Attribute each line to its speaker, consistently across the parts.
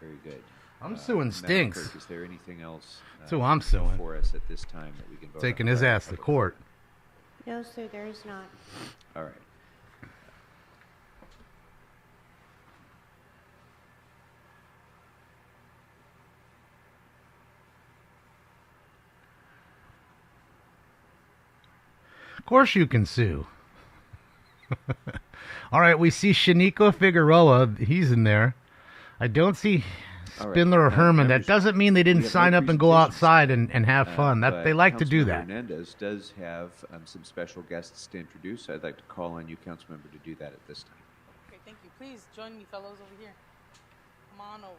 Speaker 1: Very good. Uh,
Speaker 2: I'm suing
Speaker 1: Madam
Speaker 2: Stinks.
Speaker 1: Clerk, Is there anything else?
Speaker 2: That's who I'm suing.
Speaker 1: For us at this time that we can vote on?
Speaker 2: Taking his
Speaker 1: Right.
Speaker 2: ass to court.
Speaker 3: No, sir, there is not.
Speaker 1: All right.
Speaker 2: Of course you can sue. All right, we see Shanico Figueroa. He's in there. I don't see
Speaker 1: All right, uh,
Speaker 2: Spindler or
Speaker 1: now,
Speaker 2: Herman. That
Speaker 1: members,
Speaker 2: doesn't mean they
Speaker 1: we
Speaker 2: didn't
Speaker 1: have
Speaker 2: sign
Speaker 1: no
Speaker 2: up and go
Speaker 1: presentations.
Speaker 2: outside and, and have
Speaker 1: Uh,
Speaker 2: fun. That
Speaker 1: but
Speaker 2: they like to do
Speaker 1: Councilmember
Speaker 2: that.
Speaker 1: Hernandez does have um, some special guests to introduce. I'd like to call on you, Councilmember, to do that at this time.
Speaker 4: Okay, thank you. Please join me, fellows, over here. Come on over.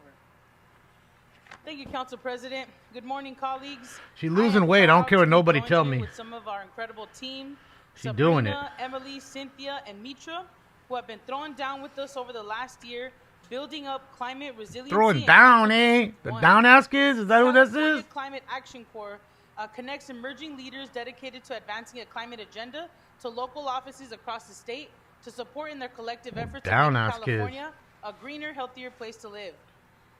Speaker 4: Thank you, Council President. Good morning, colleagues.
Speaker 2: She
Speaker 4: I
Speaker 2: losing
Speaker 4: am
Speaker 2: weight. I don't
Speaker 4: proud
Speaker 2: care
Speaker 4: to
Speaker 2: what
Speaker 4: be
Speaker 2: nobody
Speaker 4: joined
Speaker 2: tell
Speaker 4: today
Speaker 2: me.
Speaker 4: With some of our incredible team.
Speaker 2: She doing it.
Speaker 4: Sabrina, Emily, Cynthia, and Mitra, who have been throwing down with us over the last year, building up climate resilience.
Speaker 2: Throwing down, eh? The down ass kids? Is that who this
Speaker 4: California
Speaker 2: is?
Speaker 4: Climate Action Corps uh, connects emerging leaders dedicated to advancing a climate agenda to local offices across the state to support in their collective efforts
Speaker 2: down
Speaker 4: to make
Speaker 2: ass kids.
Speaker 4: California a greener, healthier place to live.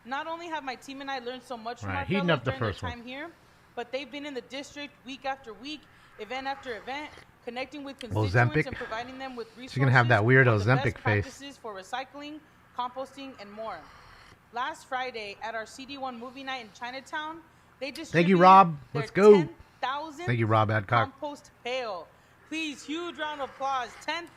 Speaker 4: Not only have my team and I learned so much from
Speaker 2: Right,
Speaker 4: our
Speaker 2: heating
Speaker 4: fellows
Speaker 2: up the
Speaker 4: during their
Speaker 2: first one.
Speaker 4: time here, but they've been in the district week after week, event after event, connecting with constituents
Speaker 2: Ozempic?
Speaker 4: and providing them with resources.
Speaker 2: She's gonna have that weird
Speaker 4: on the best
Speaker 2: Ozempic face.
Speaker 4: practices for recycling, composting, and more. Last Friday at our CD1 movie night in Chinatown, they just
Speaker 2: Rob. Let's go.
Speaker 4: Thank
Speaker 2: Thank you, Rob Adcock.
Speaker 4: Compost pail. Please, huge round of applause.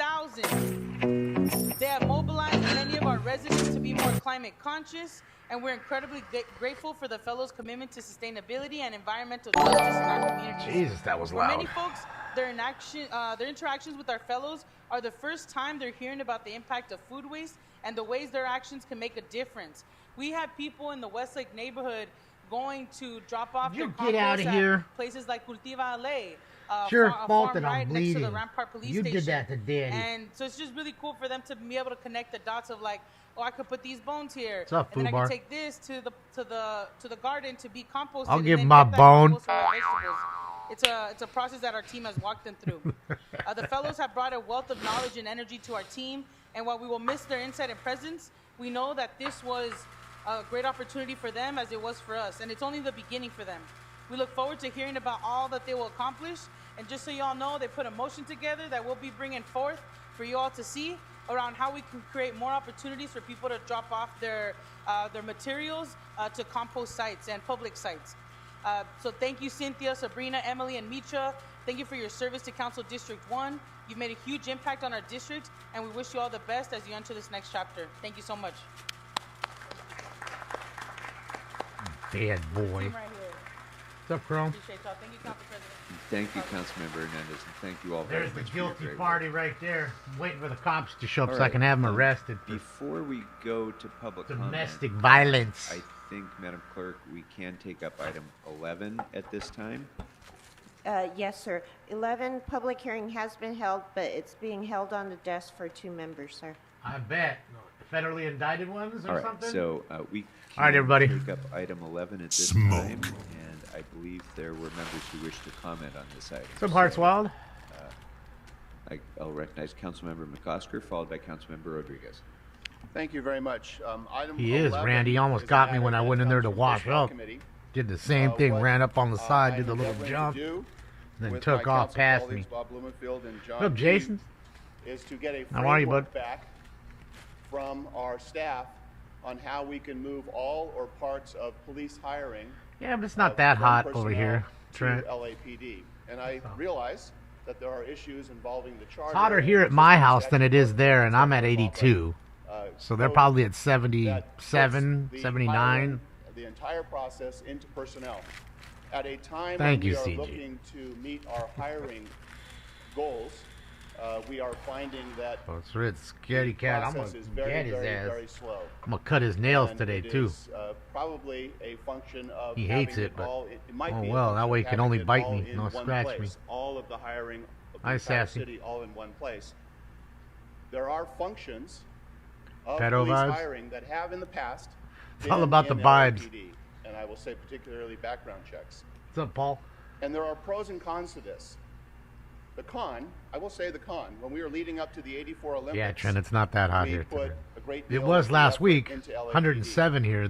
Speaker 4: 10,000. They have mobilized many of our residents to be more climate conscious, and we're incredibly gra- grateful for the fellows' commitment to sustainability and environmental justice in our communities.
Speaker 2: Jesus, that was
Speaker 4: For many
Speaker 2: loud.
Speaker 4: folks, their, inaction, uh, their interactions with our fellows are the first time they're hearing about the impact of food waste and the ways their actions can make a difference. We have people in the Westlake neighborhood going to drop off
Speaker 2: You
Speaker 4: their
Speaker 2: get outta
Speaker 4: compost at
Speaker 2: here.
Speaker 4: places like Cultiva Ale. Uh,
Speaker 2: It's your
Speaker 4: fa- a
Speaker 2: fault
Speaker 4: farm
Speaker 2: that I'm
Speaker 4: right next to the
Speaker 2: bleeding.
Speaker 4: Rampart Police
Speaker 2: You did
Speaker 4: Station.
Speaker 2: that to Daddy.
Speaker 4: And so it's just really cool for them to be able to connect the dots of like, oh, I could put these bones here,
Speaker 2: What's up,
Speaker 4: and then I
Speaker 2: Fubar?
Speaker 4: can take this to the to the to the garden to be composted.
Speaker 2: I'll
Speaker 4: and
Speaker 2: give
Speaker 4: then
Speaker 2: my
Speaker 4: get that
Speaker 2: bone.
Speaker 4: compost for my vegetables. It's a it's a process that our team has walked them through. uh, the fellows have brought a wealth of knowledge and energy to our team, and while we will miss their insight and presence, we know that this was a great opportunity for them as it was for us, and it's only the beginning for them. We look forward to hearing about all that they will accomplish. And just so y'all know, they put a motion together that we'll be bringing forth for you all to see around how we can create more opportunities for people to drop off their uh, their materials uh, to compost sites and public sites. Uh, so thank you, Cynthia, Sabrina, Emily, and Mitra. Thank you for your service to Council District 1. You've made a huge impact on our district, and we wish you all the best as you enter this next chapter. Thank you so much.
Speaker 2: Dead boy.
Speaker 4: Team right here.
Speaker 2: What's up, Chrome?
Speaker 4: Appreciate y'all. Thank you, Council President.
Speaker 1: Thank you, Councilmember Hernandez, and thank you all very
Speaker 2: There's the
Speaker 1: much for your
Speaker 2: guilty
Speaker 1: great work.
Speaker 2: party right there. I'm waiting for the cops to show up
Speaker 1: All
Speaker 2: so I
Speaker 1: right,
Speaker 2: can have them
Speaker 1: um,
Speaker 2: arrested for
Speaker 1: Before we go to public comment,
Speaker 2: domestic violence.
Speaker 1: I think, Madam Clerk, we can take up item 11 at this time.
Speaker 3: Uh, Yes, sir. 11, public hearing has been held, but it's being held on the desk for two members, sir.
Speaker 2: I bet. Federally indicted ones or
Speaker 1: All right,
Speaker 2: something?
Speaker 1: so uh, we
Speaker 2: All right,
Speaker 1: can
Speaker 2: everybody.
Speaker 1: take up item 11 at this
Speaker 5: Smoke.
Speaker 1: time, and I believe there were members who wished to comment on this item.
Speaker 2: Some hearts
Speaker 1: So,
Speaker 2: wild.
Speaker 1: I- I'll recognize Councilmember McCosker, followed by Councilmember Rodriguez.
Speaker 6: Thank you very much. Um, item
Speaker 2: He is,
Speaker 6: 11
Speaker 2: Randy. He almost
Speaker 6: is a
Speaker 2: got me
Speaker 6: matter
Speaker 2: when I
Speaker 6: that
Speaker 2: went in there to
Speaker 6: comes from
Speaker 2: wash
Speaker 6: Personnel
Speaker 2: up.
Speaker 6: Committee.
Speaker 2: Did the same
Speaker 6: Uh,
Speaker 2: thing,
Speaker 6: what,
Speaker 2: ran up on the
Speaker 6: uh,
Speaker 2: side,
Speaker 6: I
Speaker 2: did a
Speaker 6: am
Speaker 2: little
Speaker 6: endeavoring to
Speaker 2: jump,
Speaker 6: do
Speaker 2: then
Speaker 6: with
Speaker 2: took
Speaker 6: my
Speaker 2: off
Speaker 6: council
Speaker 2: past me.
Speaker 6: colleagues, Bob Blumenfield and John
Speaker 2: What up,
Speaker 6: Dean,
Speaker 2: Jason?
Speaker 6: Is to get a
Speaker 2: How are you,
Speaker 6: framework
Speaker 2: bud?
Speaker 6: back from our staff on how we can move all or parts of police hiring.
Speaker 2: Yeah, but it's not
Speaker 6: of-
Speaker 2: that
Speaker 6: from
Speaker 2: hot over
Speaker 6: personnel
Speaker 2: here,
Speaker 6: to
Speaker 2: Trent. Oh.
Speaker 6: LAPD. And I realize that there are issues involving the charter.
Speaker 2: It's hotter
Speaker 6: and
Speaker 2: here at my
Speaker 6: existing
Speaker 2: house than it is
Speaker 6: statute
Speaker 2: there, and I'm at
Speaker 6: of law, but,
Speaker 2: 82.
Speaker 6: uh,
Speaker 2: So they're
Speaker 6: code
Speaker 2: probably at
Speaker 6: that
Speaker 2: 77,
Speaker 6: puts the
Speaker 2: 79.
Speaker 6: hiring of The entire process into personnel. At a time when
Speaker 2: Thank you,
Speaker 6: we are
Speaker 2: CG.
Speaker 6: looking to meet our hiring goals, uh, we are finding that
Speaker 2: Oh, it's red scaredy cat. I'm
Speaker 6: process
Speaker 2: gonna
Speaker 6: is
Speaker 2: get
Speaker 6: very,
Speaker 2: his
Speaker 6: very,
Speaker 2: ass.
Speaker 6: very slow.
Speaker 2: I'm gonna cut his nails
Speaker 6: And
Speaker 2: today
Speaker 6: it
Speaker 2: too.
Speaker 6: is, uh, probably a function of
Speaker 2: He
Speaker 6: having
Speaker 2: hates it, but-
Speaker 6: all- it- it might
Speaker 2: oh
Speaker 6: be a
Speaker 2: well, that
Speaker 6: function
Speaker 2: way
Speaker 6: of
Speaker 2: he can
Speaker 6: having
Speaker 2: only
Speaker 6: it
Speaker 2: bite
Speaker 6: all
Speaker 2: me,
Speaker 6: in
Speaker 2: not
Speaker 6: one
Speaker 2: scratch me.
Speaker 6: place, All of the hiring of the
Speaker 2: Hi,
Speaker 6: entire
Speaker 2: Sassy.
Speaker 6: city all in one place. There are functions of
Speaker 2: Pedo
Speaker 6: police
Speaker 2: vibes?
Speaker 6: hiring that have in the past.
Speaker 2: It's all
Speaker 6: been
Speaker 2: about the
Speaker 6: in
Speaker 2: vibes.
Speaker 6: LAPD, and I will say particularly background checks.
Speaker 2: What's up, Paul?
Speaker 6: And there are pros and cons to this. The con, I will say the con, when we were leading up to the 84 Olympics.
Speaker 2: Yeah, Trent, it's not that hot
Speaker 6: we
Speaker 2: here
Speaker 6: put
Speaker 2: today.
Speaker 6: a great
Speaker 2: It
Speaker 6: deal
Speaker 2: was
Speaker 6: of
Speaker 2: last
Speaker 6: effort
Speaker 2: week,
Speaker 6: into LAPD.
Speaker 2: 107 here.